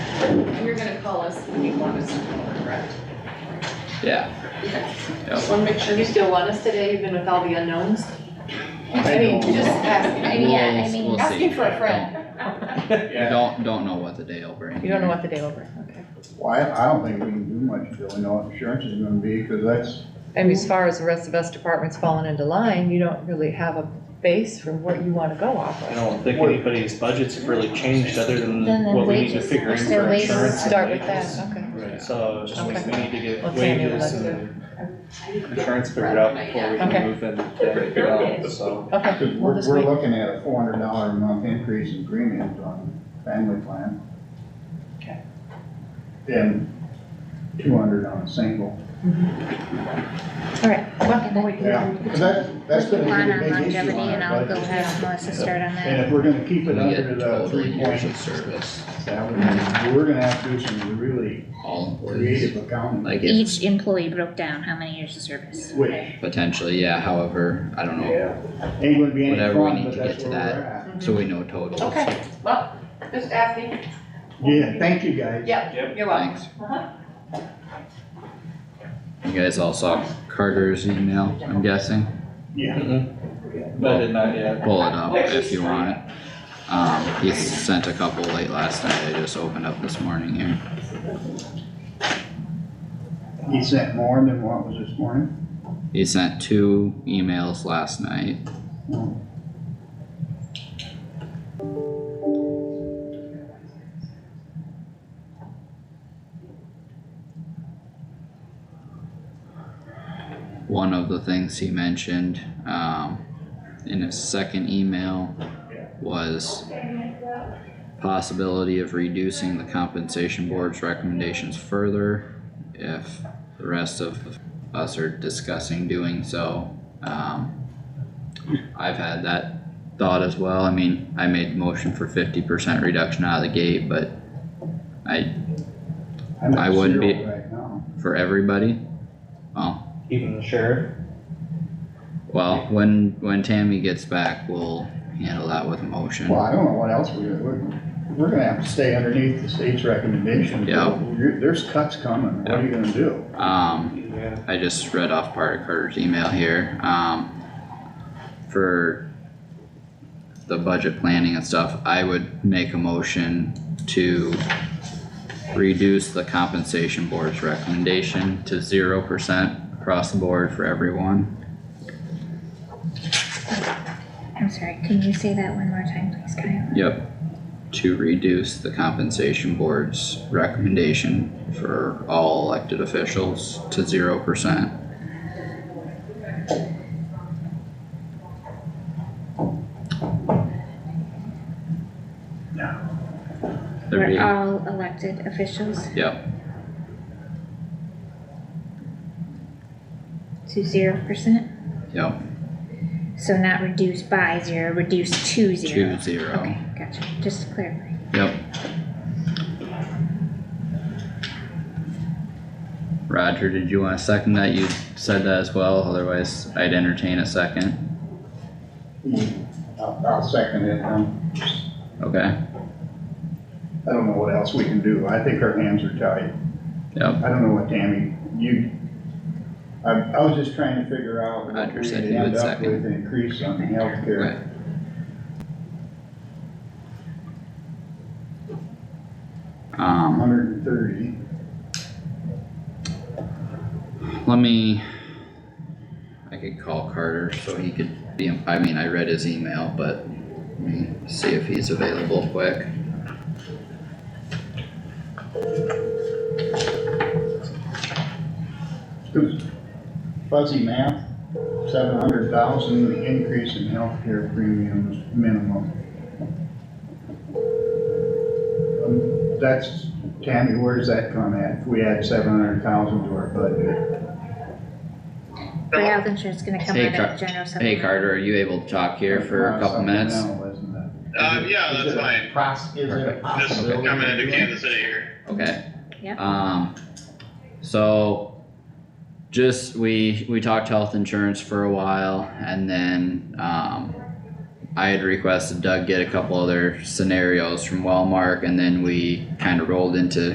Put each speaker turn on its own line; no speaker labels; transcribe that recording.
And you're gonna call us if you want us to come over, correct?
yeah,
Just wanna make sure.
You still want us today even with all the unknowns?
I mean, just ask.
Yeah, I
We'll-
mean,
we'll see.
Asking for a friend.
Don't- Don't, don't know what the day will bring.
You don't know what the day will bring, okay.
Well, I, I don't think we can do much until we know what insurance is gonna be, cause that's,
I mean, as far as the rest of us departments falling into line, you don't really have a base for what you wanna go off
I
of.
don't think anybody's budgets have really changed other
Then
than
the
what we need to
wages,
figure in
their
for
wages.
insurance. and
Start with
wages.
that, okay.
So we
Okay.
need to get
Well, Tammy would
wages
like
and insurance figured out before we
Okay.
can move in, anything else, so.
Okay,
cause
we'll
we're,
just
we're
wait.
looking at a four hundred dollar a month increase in premiums on family plan.
Okay.
And two hundred on a single.
All right, well, we'll wait.
Yeah, cause that, that's
Put
gonna
the
be
plan
a
on
big issue
longevity
on
and
our
I'll go
budget.
have Melissa start on
And
that.
if we're gonna keep
We
it under
get
the
total
uh, three
years of
point
service,
seven, we're gonna have to do some really
all employees,
creative accounting.
like if,
Each employee broke down how many years of service.
Which,
potentially, yeah, however, I don't know,
yeah, ain't gonna be any
Whatever we
fun,
need
but
to
that's
get to
where we're
that.
at.
so we know totals.
Okay, well, just asking.
Yeah, thank you guys.
Yep, you're welcome.
Thanks.
Uh-huh.
You guys all saw Carter's email, I'm guessing?
Yeah.
But did not yet.
pull it up if you want it. Um, he sent a couple late last night, I just opened up this morning here.
He sent more than what was this morning?
He sent two emails last night. One of the things he mentioned, um, in his second email was possibility of reducing the compensation board's recommendations further if the rest of the us are discussing doing so. Um, I've had that thought as well. I mean, I made the motion for fifty percent reduction out of the gate, but I,
I'm at
I wouldn't be-
zero Right now.
for everybody, well,
Even the sheriff,
Well, when, when Tammy gets back, we'll handle that with motion.
Well, I don't know what else we're, we're, we're gonna have to stay underneath the state's recommendation.
Yeah.
You're- There's cuts coming, what are you gonna do?
Um,
yeah,
I just read off part of Carter's email here, um, for the budget planning and stuff, I would make a motion to reduce the compensation board's recommendation to zero percent across the board for everyone.
I'm sorry, can you say that one more time, please, Kyle?
Yep. To reduce the compensation board's recommendation for all elected officials to zero percent.
We're all elected officials
Yep,
to zero percent,
yep,
so not reduced by zero, reduced to
two
zero.
zero,
Okay, gotcha, just to clarify.
yep. Roger, did you want to second that? You said that as well, otherwise I'd entertain a second.
I'll, I'll second it, um,
Okay,
I don't know what else we can do, I think our hands are tied.
yep,
I don't know what Tammy, you, I, I was just trying to figure out. what
Roger
we
said he
could
would
end up
second.
With an increase on the healthcare.
okay. Um.
hundred and thirty.
Let me, I could call Carter so he could be, I mean, I read his email, but let me see if he's available quick.
Fuzzy math, seven hundred thousand increase in healthcare premiums minimum. Um, That's, Tammy, where's that come at? If we add seven hundred thousand to our budget?
Free health insurance is gonna come
Hey,
out
Car-
of general
Hey
supplemental.
Carter, are you able to talk here for a couple minutes?
Supplemental, isn't it?
Um, yeah, that's
Is it a
fine.
pros- Is it a
Perfect.
Just
possibility?
coming into Kansas City here.
Okay.
Yep.
Um, so just, we, we talked health insurance for a while and then, um, I had requested Doug get a couple other scenarios from Wellmark and then we kind of rolled into